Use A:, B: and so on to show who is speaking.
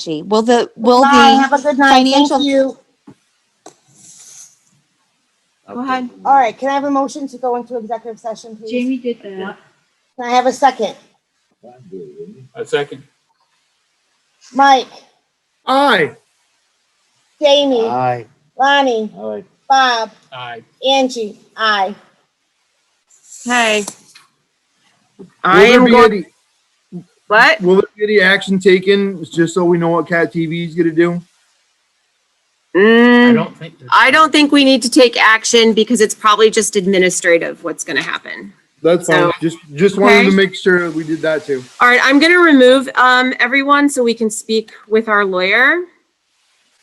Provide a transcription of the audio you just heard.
A: Gee, Will the, will
B: Bye.
A: the
B: Have a good night. Thank
A: financial,
B: you.
C: Go ahead.
B: All right. Can I have a motion to go into executive session, please?
C: Jamie did that.
B: Can I have a second?
D: I second.
B: Mike,
E: Aye.
B: Jamie,
E: Aye.
B: Lonnie,
E: Aye.
B: Bob,
D: Aye.
B: Angie, I.
F: Okay. I
E: Will there
F: am
E: be
F: going,
E: any,
F: what?
E: will there be any action taken, just so we know what Cat TV is gonna do?
F: Mm,
D: I don't think. there's-
F: I don't think we need to take action because it's probably just administrative what's going to happen.
E: That's fine,
F: So-
E: just, just wanted to
F: Okay.
E: make sure we did that too.
F: All right, I'm going to remove um, everyone so we can speak with our lawyer.